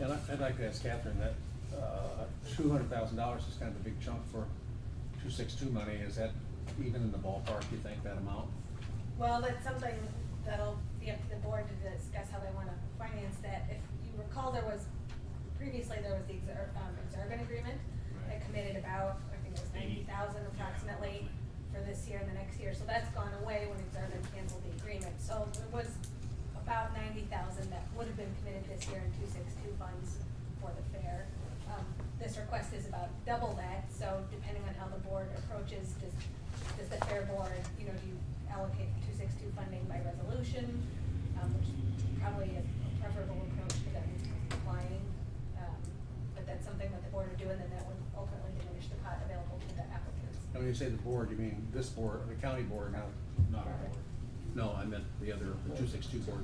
And I- I'd like to ask Catherine that, uh, two hundred thousand dollars is kind of a big chunk for two six two money. Is that even in the ballpark, you think, that amount? Well, that's something that'll be up to the board to discuss how they wanna finance that. If you recall, there was, previously, there was the exur- um, exurban agreement that Right. committed about, I think it was ninety Eighty. thousand approximately for this year and the next year, so that's gone away when exurban canceled the agreement. So it was about ninety thousand that would have been committed this year in two six two funds for the fair. Um, this request is about double that, so depending on how the board approaches, does, does the fair board, you know, do you allocate two six two funding by resolution? Um, which is probably a preferable approach to them applying, um, but that's something that the board would do, and then that would ultimately diminish the pot available to the applicants. And when you say the board, you mean this board, the county board, not, Not our board. no, I meant the other, the two six two board.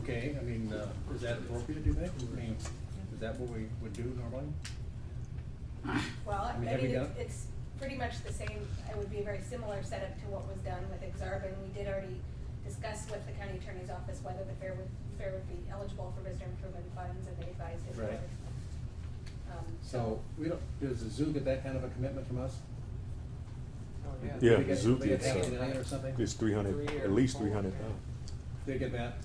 Okay, I mean, uh, is that appropriate, do you think? I mean, is that what we would do normally? Well, I I mean, mean, have you it's, done- it's pretty much the same, it would be a very similar setup to what was done with Exarban. We did already discuss with the county attorney's office whether the fair would, fair would be eligible for visitor improvement funds, and they advised it Right. was. Um, So, we don't, does the zoo get that kind of a commitment from us? Yeah, They get- zoo They get gets, half a uh, million or something? It's three hundred, at least three hundred thousand. They get that,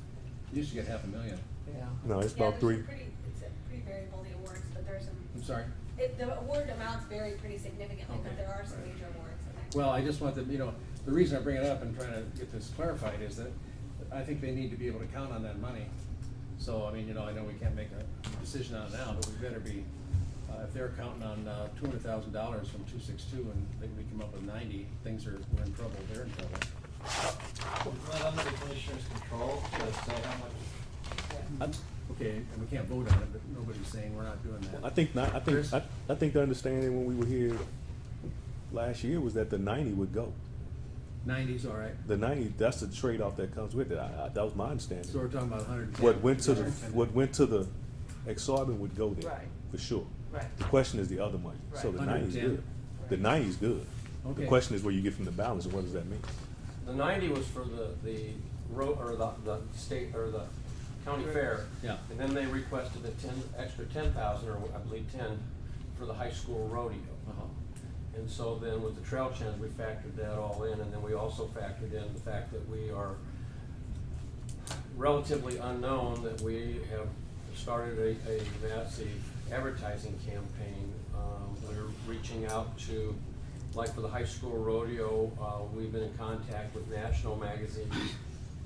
used to get half a million. Yeah. No, it's about Yeah, there's three, some pretty, it's a pretty variable, the awards, but there's some, I'm sorry. it, the award amounts vary pretty significantly, Okay, but there are some right. major awards in that. Well, I just want to, you know, the reason I bring it up and trying to get this clarified is that I think they need to be able to count on that money. So, I mean, you know, I know we can't make a decision on it now, but we better be, uh, if they're counting on, uh, two hundred thousand dollars from two six two and they- we come up with ninety, things are, we're in trouble, they're in trouble. Not under the commissioner's control to say how much, Okay, and we can't vote on it, but nobody's saying we're not doing that. I think not, I think, Chris? I, I think the understanding when we were here last year was that the ninety would go. Ninety's all right. The ninety, that's the trade-off that comes with it, I, I, that was my So understanding. we're talking about hundred and ten. What went to the, what went to the exorbitant would go there, Right. for sure. Right. The question is the other money, so Right. the ninety's 110. good. The ninety's good. The Okay. question is where you get from the balance, and what does that mean? The ninety was for the, the road, or the, the state, or the county fair. Yeah. And then they requested a ten, extra ten thousand, or I believe ten, for the high school rodeo. Uh-huh. And so then with the trail chance, we factored that all in, and then we also factored in the fact that we are relatively unknown, that we have started a, a massive advertising campaign. Um, we're reaching out to, like for the high school rodeo, uh, we've been in contact with national magazines.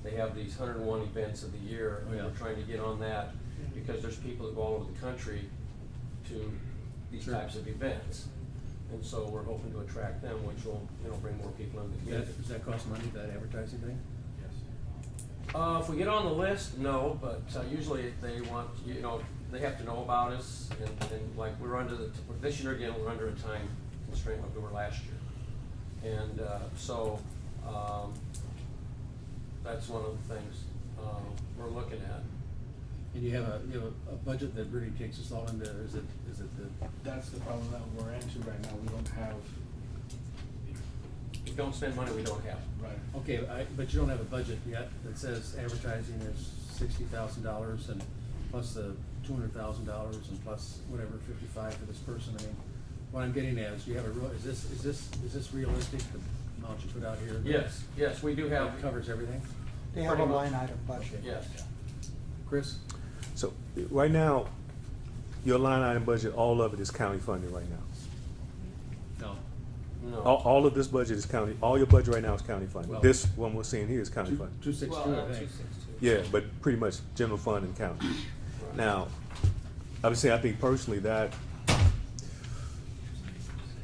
They have these hundred and one events of the year, and Oh, we're yeah. trying to get on that, because there's people that go all over the country to these Sure. types of events. And so we're hoping to attract them, which will, you know, bring more people into Does the that, community. does that cost money, that advertising thing? Uh, if we get on the list, no, but uh, usually they want, you know, they have to know about us, and, and like, we're under the, this year again, we're under a time constraint like we were last year. And, uh, so, um, that's one of the things, um, we're looking at. And you have a, you have a- a budget that really takes us all into, is it, is it the, That's the problem that we're into right now, we don't have, We don't spend money we don't have. right, okay, I, but you don't have a budget yet that says advertising is sixty thousand dollars and plus the two hundred thousand dollars and plus whatever, fifty-five for this person, I mean, what I'm getting at is, do you have a real, is this, is this, is this realistic, the amount you put out here? Yes, yes, we do have. That covers everything? They have a Pretty much. line item budget. Yes. Chris? So, right now, your line item budget, all of it is county funded right now. No. No. All, all of this budget is county, all your budget right now is county Well- funded. This one we're seeing here is county Two, funded. two six two, I think. Yeah, but pretty much general fund and county. Now, I would say, I think personally that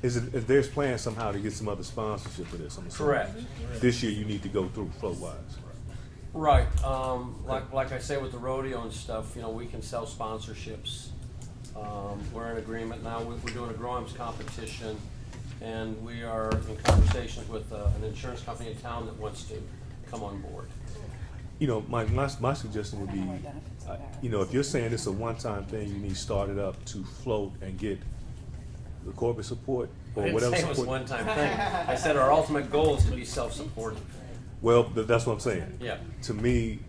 is, it- if there's plans somehow to get some other sponsorship for this, I'm assuming. Correct. This year you need to go through flow wise. Right, um, like, like I say with the rodeo and stuff, you know, we can sell sponsorships. Um, we're in agreement now, we're, we're doing a groms competition, and we are in conversations with, uh, an insurance company in town that wants to come on board. You know, my, my, my suggestion would be, uh, you know, if you're saying it's a one-time thing, you need to start it up to float and get the corporate support I or didn't whatever say it was support. one-time thing, I said our ultimate goal is to be self-supporting. Well, th- that's what I'm saying. Yeah. To me,